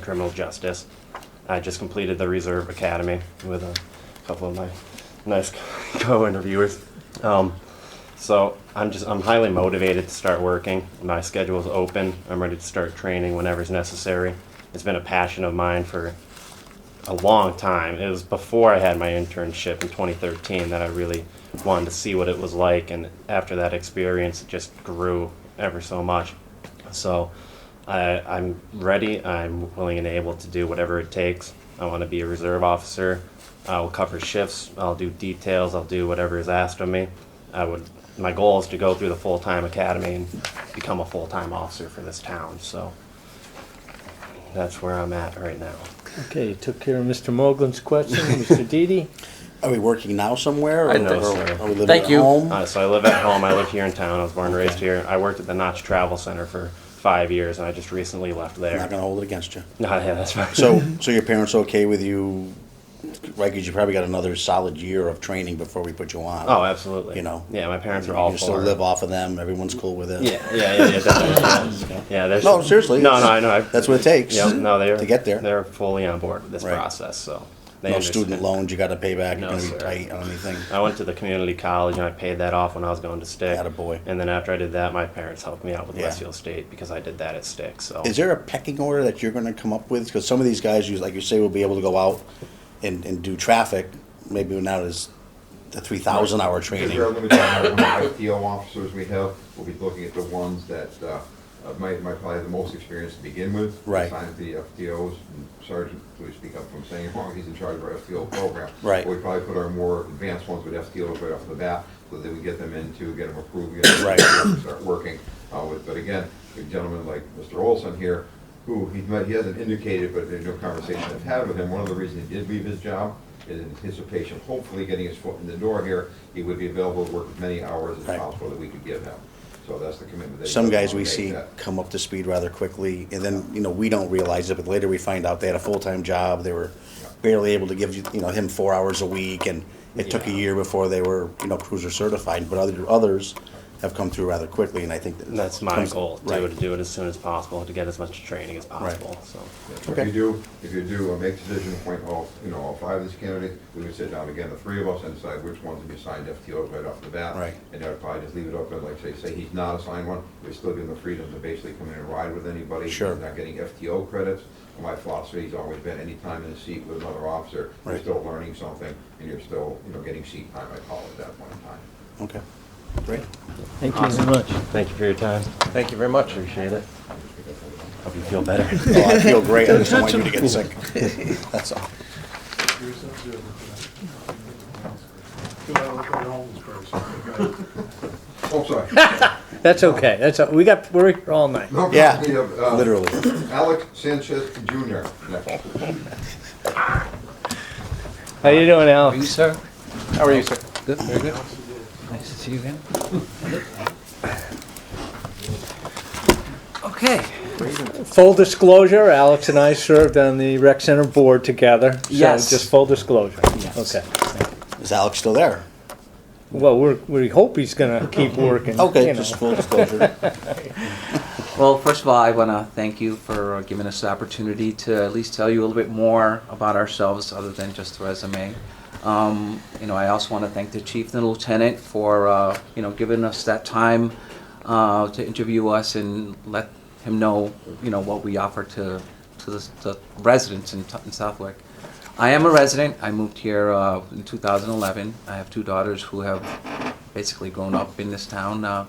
criminal justice. I just completed the Reserve Academy with a couple of my nice co-interviewers. Um, so I'm just I'm highly motivated to start working. My schedule's open. I'm ready to start training whenever's necessary. It's been a passion of mine for a long time. It was before I had my internship in 2013 that I really wanted to see what it was like, and after that experience, it just grew ever so much. So I, I'm ready. I'm willing and able to do whatever it takes. I want to be a reserve officer. I'll cover shifts. I'll do details. I'll do whatever is asked of me. I would. My goal is to go through the full time academy and become a full time officer for this town. So that's where I'm at right now. Okay, you took care of Mr. Mogul's question, Mr. Didi. Are we working now somewhere? or I know, are- sir. Are we living Thank at you. home? Uh, so I live at home. I live here in town. I was born and raised here. I worked at the Notch Travel Center for five years, and I just recently left I'm there. not gonna hold it against you. No, yeah, that's fine. So, so your parents okay with you? Right, because you probably got another solid year of training before we put you on. oh, absolutely. You know. Yeah, my parents You are all can still for it. live off of them. Everyone's cool with it. Yeah, yeah, yeah, yeah. definitely. yeah. yeah there's- No, seriously, No, it's- no, I know. I, That's what it takes. Yep, no, they're to get there. They're fully on board with this Right. process. So they No understand. student loans you got to pay back. No, You're gonna sir. be tight on anything. I went to the community college and I paid that off when I was going to Stick. Attaboy. And then after I did that, my parents helped me out with Yeah. Westfield State because I did that at Stick. So Is there a pecking order that you're gonna come up with? Because some of these guys, you like you say, will be able to go out and, and do traffic. Maybe not as the three thousand hour Because training. there are limited number of FTO officers we have, we'll be looking at the ones that uh, uh, might, might probably have the most experience to begin with. Right. Assigned to the FTOs, and Sergeant, please speak up from saying wrong, he's in charge of our FTO program. Right. We probably put our more advanced ones with FTOs right off the bat, so that we get them into, get them approved, get them Right. and start working uh, with. But again, a gentleman like Mr. Olson here, who he might, he hasn't indicated, but there's no conversation I've had with him. One of the reasons he did leave his job is in anticipation, of hopefully getting his foot in the door here, he would be available to work as many hours as Right. possible that we could give him. So that's the commitment that. he some does guys wanna we make see that- come up to speed rather quickly, and then, you know, we don't realize it, but later we find out they had a full-time job, they were barely able to give, you you know, him four hours a week, and it took a Yeah. year before they were, you know, cruiser certified, but other, others have come through rather quickly, and I think. that- That's my comes- goal, to, Right, to do it as soon as possible, to get as much training as possible. So, If Okay. you do, if you do, uh, make the decision, appoint all, you know, all five of these candidates, we can sit down again, the three of us, and decide which ones to be assigned FTO right off the bat. Right. And I'd probably just leave it open, like say, say he's not assigned one, we still give him the freedom to basically come in and ride with anybody. He's Sure. Not getting FTO credits, my philosophy's always been, any time in the seat with another officer, you're Right. still learning something, and you're still, you know, getting seat time, I call it that point in time. okay, great. Thank you very much. thank you for your time. Thank you very much. Appreciate it. Hope you feel better. Oh, I feel great, I just don't want you to get sick, that's all. Oh, sorry. That's okay, that's, we got, we're here all night. No, Yeah, we have, uh, literally. Alex Sanchez Junior next. How you doing, Are you, Alex? sir? How are you, sir? Good, very good. Nice to see you again. Okay. Full disclosure, Alex and I served on the rec center board together. Yes. So just full disclosure. Yes. Okay. Is Alex still there? Well, we're, we hope he's gonna keep working. Okay, you know. just full disclosure, Well, first of all, I want to thank you for uh, giving us the opportunity to at least tell you a little bit more about ourselves other than just the resume. Um, you know, I also want to thank the chief and lieutenant for, uh, you know, giving us that time uh, to interview us and let him know, you know, what we offer to, to the, the residents in, T- in Southwick. I am a resident. I moved here uh, in 2011. I have two daughters who have basically grown up in this town. Uh,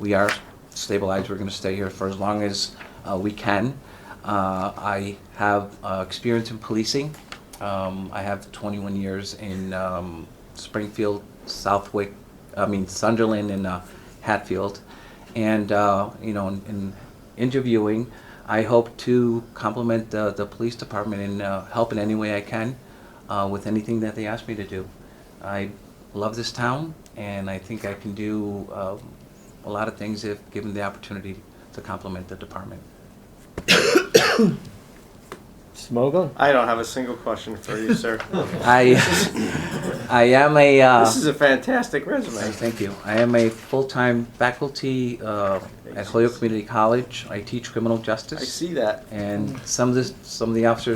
we are stabilized. We're going to stay here for as long as uh, we can. Uh, I have uh, experience in policing. Um, I have 21 years in um, Springfield, Southwick, I mean Sunderland, and uh, Hatfield. And uh, you know, in, in interviewing, I hope to compliment the, the police department and uh, help in any way I can uh, with anything that they ask me to do. I love this town, and I think I can do um, a lot of things if given the opportunity to complement the department. Smogel? I don't have a single question for you, sir. I, I am a, uh, This is a fantastic resume. thank you. I am a full-time faculty, uh, at Holyoke Community College. I teach criminal justice. I see that. And some of the, some of the officers